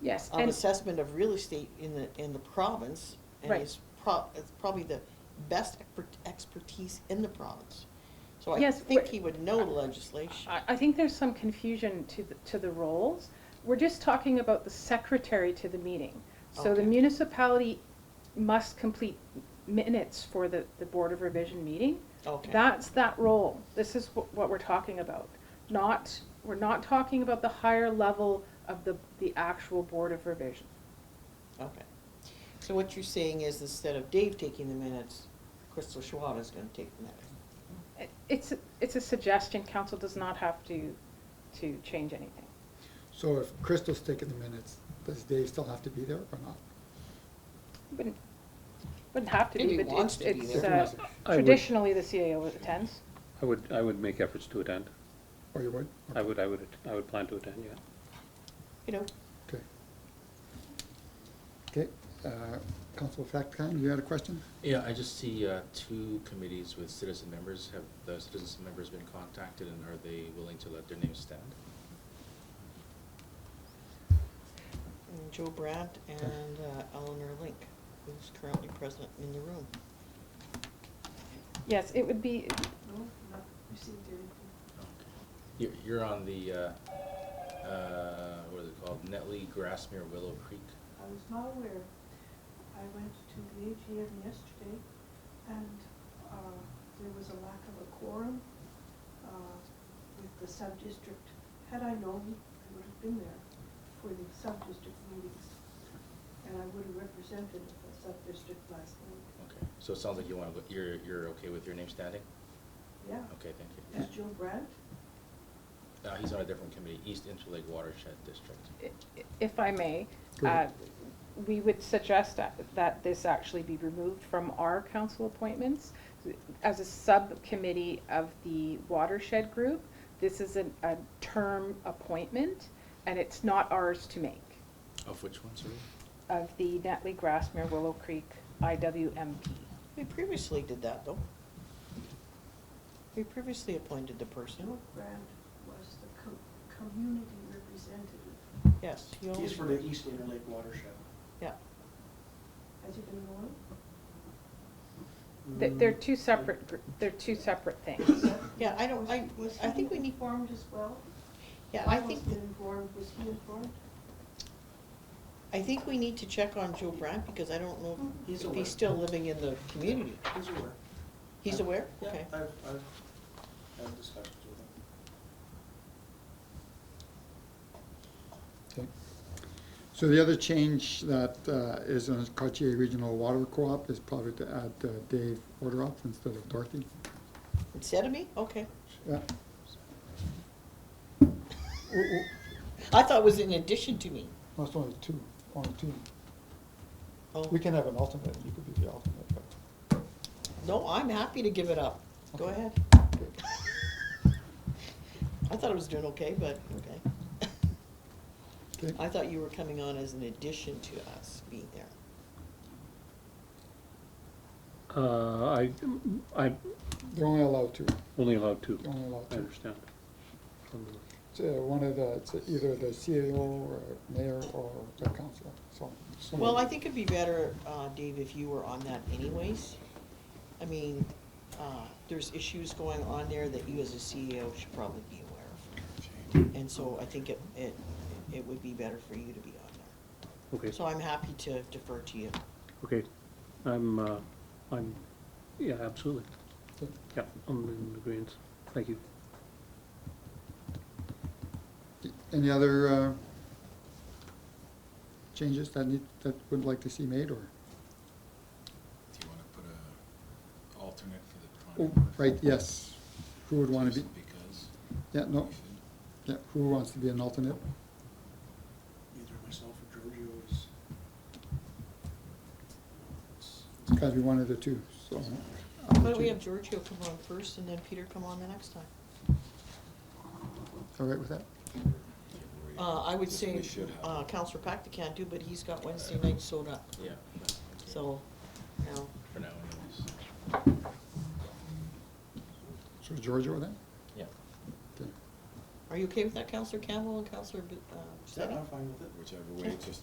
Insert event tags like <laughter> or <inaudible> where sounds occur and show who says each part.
Speaker 1: Yes,
Speaker 2: of
Speaker 1: and-
Speaker 2: assessment of real estate in the, in the province.
Speaker 1: Right.
Speaker 2: And is pro, it's probably the best expert- expertise in the province. So I
Speaker 1: Yes,
Speaker 2: think
Speaker 1: we're-
Speaker 2: he would know the legislation.
Speaker 1: I, I think there's some confusion to the, to the roles. We're just talking about the secretary to the meeting. So the
Speaker 2: Okay.
Speaker 1: municipality must complete minutes for the, the Board of Revision meeting.
Speaker 2: Okay.
Speaker 1: That's that role. This is what, what we're talking about. Not, we're not talking about the higher level of the, the actual Board of Revision.
Speaker 2: Okay. So what you're saying is instead of Dave taking the minutes, Crystal Schwab is gonna take the minutes.
Speaker 1: It- It's, a- it's a suggestion. Council does not have to, to change anything.
Speaker 3: So if Crystal's taking the minutes, does Dave still have to be there or not?
Speaker 1: Wouldn't, wouldn't have to
Speaker 2: If
Speaker 1: be,
Speaker 2: he
Speaker 1: but
Speaker 2: wants
Speaker 1: it's,
Speaker 2: to be
Speaker 1: it's,
Speaker 2: there.
Speaker 1: uh,
Speaker 4: I would-
Speaker 1: traditionally the CAO attends.
Speaker 4: I would, I would make efforts to attend.
Speaker 3: Or you would?
Speaker 4: I would, I would, I would plan to attend, yeah.
Speaker 2: You know,
Speaker 3: Okay. Okay, uh, Council Fatcon, you had a question?
Speaker 5: Yeah, I just see uh, two committees with citizen members. Have the citizen members been contacted and are they willing to let their names stand?
Speaker 2: and Joe Brandt and uh, Eleanor Link, who's currently present in the room.
Speaker 1: Yes, it would be,
Speaker 5: You're, you're on the, uh, uh, what is it called, Netley Grassmere Willow Creek?
Speaker 6: I was not aware. I went to the AGM yesterday and uh, there was a lack of a quorum uh, with the sub-district. Had I known, I would have been there for the sub-district meetings. And I would have represented the sub-district last night.
Speaker 5: Okay, so it sounds like you want to, you're, you're okay with your name standing?
Speaker 6: Yeah.
Speaker 5: Okay,
Speaker 6: Is
Speaker 5: thank you.
Speaker 6: Joe Brandt?
Speaker 5: Uh, He's on a different committee, East Interlake Watershed District.
Speaker 1: i- if I may,
Speaker 3: Go ahead.
Speaker 1: uh, we would suggest that, that this actually be removed from our council appointments. As a subcommittee of the watershed group, this is an, a term appointment, and it's not ours to make,
Speaker 5: Of which one, sorry?
Speaker 1: of the Netley Grassmere Willow Creek IWMP.
Speaker 2: We previously did that, though. We previously appointed the person.
Speaker 6: Joe Brandt was the co- community representative.
Speaker 2: Yes. he
Speaker 7: He's
Speaker 2: always-
Speaker 7: for the East Interlake Watershed.
Speaker 2: Yeah.
Speaker 6: Has he been going?
Speaker 1: They're,
Speaker 3: Mm.
Speaker 1: they're two separate, gr- they're two separate things.
Speaker 2: Yeah, I don't, I,
Speaker 6: Was
Speaker 2: I think
Speaker 6: he
Speaker 2: we need,
Speaker 6: informed as well?
Speaker 2: yeah, I think,
Speaker 6: wasn't informed, was he informed?
Speaker 2: I think we need to check on Joe Brandt, because I don't know
Speaker 7: He's
Speaker 2: if
Speaker 7: aware.
Speaker 2: he's still living in the community.
Speaker 7: He's aware.
Speaker 2: He's
Speaker 7: I've-
Speaker 2: aware?
Speaker 7: Yeah,
Speaker 2: Okay.
Speaker 7: I've, I've had discussions with him.
Speaker 3: Okay. So the other change that uh, is on Cartier Regional Water Co-op is probably to add uh, Dave Orderoff instead of Dorothy.
Speaker 2: Instead of me? Okay.
Speaker 3: Yeah,
Speaker 2: I thought it was in addition to me.
Speaker 3: that's only two, only two.
Speaker 2: Oh,
Speaker 3: We can have an alternate, you could be the alternate, but.
Speaker 2: no, I'm happy to give it up. Go
Speaker 3: Okay.
Speaker 2: ahead. I thought I was doing okay, but, okay. <laughs>
Speaker 3: Okay.
Speaker 2: I thought you were coming on as an addition to us being there.
Speaker 4: Uh, I, I'm
Speaker 3: They're only allowed two,
Speaker 4: only allowed two.
Speaker 3: they're only allowed
Speaker 4: I
Speaker 3: two.
Speaker 4: understand.
Speaker 3: It's, uh, one of the, it's either the CAO or mayor or the council, so.
Speaker 2: Well, I think it'd be better, uh, Dave, if you were on that anyways. I mean, uh, there's issues going on there that you as a CEO should probably be aware of. And so I think it, it, it would be better for you to be on there.
Speaker 4: Okay,
Speaker 2: So I'm happy to defer to you.
Speaker 4: okay. I'm, uh, I'm, yeah, absolutely.
Speaker 3: Okay.
Speaker 4: Yeah, I'm in agreement. Thank you.
Speaker 3: Any other uh, changes that need, that would like to see made, or,
Speaker 8: Do you want to put a alternate for the
Speaker 3: oh,
Speaker 8: Toronto?
Speaker 3: right, yes, who would want to be, Oh.
Speaker 8: Just Because.
Speaker 3: yeah, no,
Speaker 8: we should.
Speaker 3: yeah, who wants to be an alternate?
Speaker 7: Either myself or Giorgio is. it's-
Speaker 3: It's gotta be one of the two, so.
Speaker 2: Why don't we have Giorgio come on first and then Peter come on the next time?
Speaker 3: All right with that?
Speaker 2: Uh, I would
Speaker 8: Yes,
Speaker 2: say,
Speaker 8: we should have.
Speaker 2: uh, Counselor Pacta can't do, but he's got Wednesday night sold up,
Speaker 5: Yeah. that's okay
Speaker 2: so, you know,
Speaker 5: For now anyways.
Speaker 3: So Giorgio then?
Speaker 5: Yeah.
Speaker 3: Okay.
Speaker 2: I
Speaker 9: Are you okay with that, Counselor Campbell and Counselor, B- uh,
Speaker 2: Yeah,
Speaker 9: Steady?
Speaker 2: uh, I'm fine with it.
Speaker 5: whichever way, just